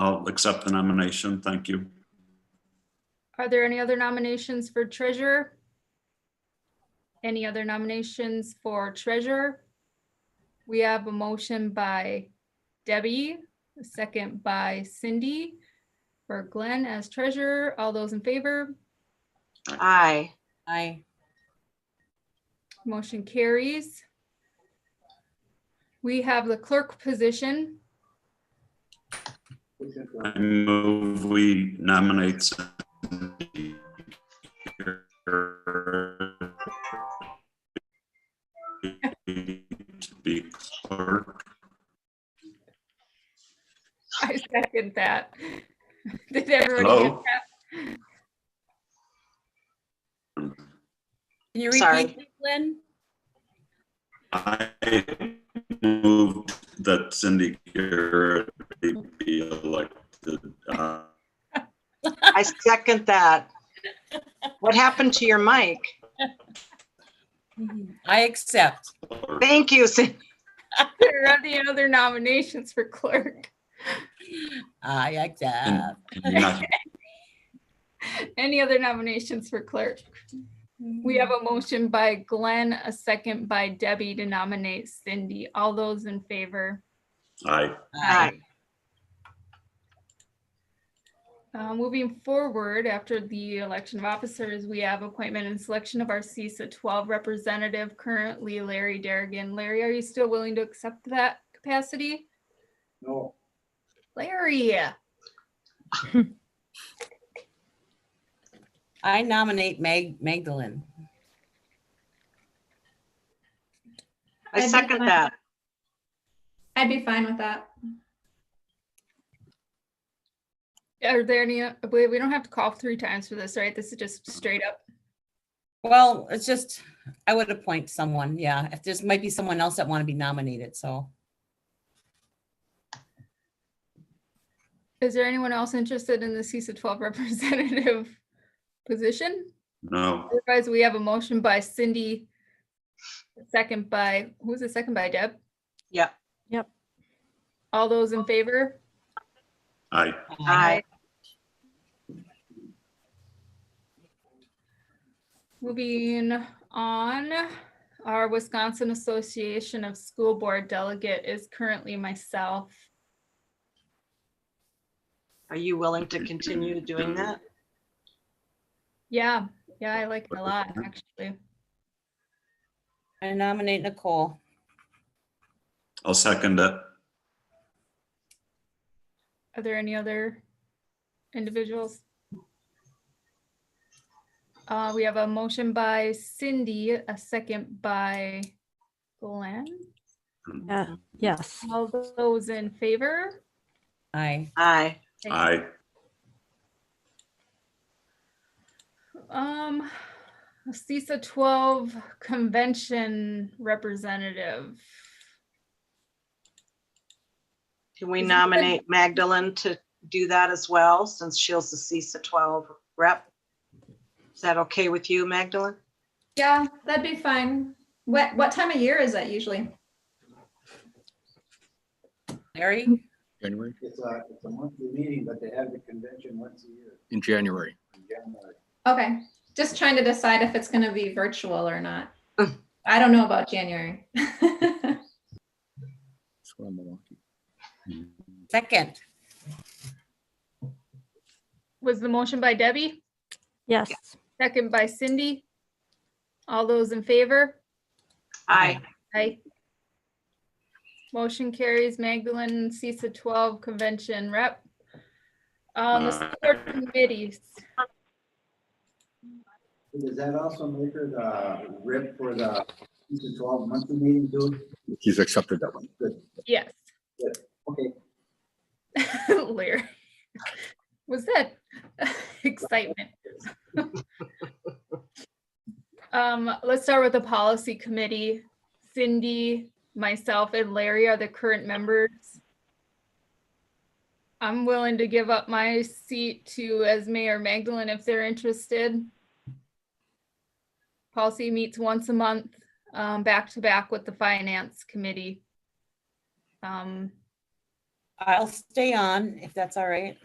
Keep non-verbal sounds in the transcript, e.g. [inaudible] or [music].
I'll accept the nomination. Thank you. Are there any other nominations for treasurer? Any other nominations for treasurer? We have a motion by Debbie, a second by Cindy for Glenn as treasurer. All those in favor, Aye. Aye. motion carries. We have the clerk position. [laughs] I move we nominate Cindy to be clerk. I second that. [laughs] Did everyone get Hello? that? Can you Sorry. repeat, that, Lynn? I move that Cindy Garrett be elected. uh, I second that. What happened to your mic? I accept. clerk. Thank you, Cindy. There [laughs] are any other nominations for clerk? I accept. Not- Any other nominations for clerk? We have a motion by Glenn, a second by Debbie to nominate Cindy. All those in favor? Aye. Aye. Uh, Moving forward, after the election of officers, we have appointment and selection of our CISA 12 representative, currently Larry Derrigan. Larry, are you still willing to accept that capacity? No, Larry, I nominate Mag, Magdalene. I second that. I'd be fine with that. are there any, we we don't have to call three times for this, right? This is just straight up. Well, it's just, I would appoint someone, yeah. If there's, might be someone else that want to be nominated, so. Is there anyone else interested in the CISA 12 representative [laughs] position? No, Otherwise, we have a motion by Cindy. a Second by, who's the second by Deb? Yeah. Yep. All those in favor? aye. Aye. Moving on, our Wisconsin Association of School Board Delegate is currently myself. Are you willing to continue doing that? Yeah, yeah, I like it a lot, actually. I nominate Nicole. I'll second it. Are there any other individuals? Uh, we have a motion by Cindy, a second by Glenn. Uh, Yes. All those in favor? Aye. Aye. Aye. Um, CISA twelve convention representative. Can we Is it- nominate Magdalene to do that as well, since she's the CISA 12 rep? Is that okay with you, Magdalene? Yeah, that'd be fine. What, what time of year is that usually? Larry? January, it's a, it's a monthly meeting, but they have the convention once a year in January. in January. Okay, just trying to decide if it's gonna be virtual or not. I don't know about January. [laughs] That's where Milwaukee. Second. Was the motion by Debbie, Yes. second by Cindy? All those in favor? Aye. Aye. Motion carries Magdalene CISA twelve convention rep. Um, the school board committees, Does that also make her the rip for the CISA 12 monthly meeting, dude? He's accepted that one. Good, yes, okay. [laughs] Larry. Was that [laughs] excitement? [laughs] Um, let's start with the policy committee. Cindy, myself and Larry are the current members. I'm willing to give up my seat to Esme or Magdalene if they're interested. Policy meets once a month, um, back to back with the finance committee. Um, I'll stay on if that's all right.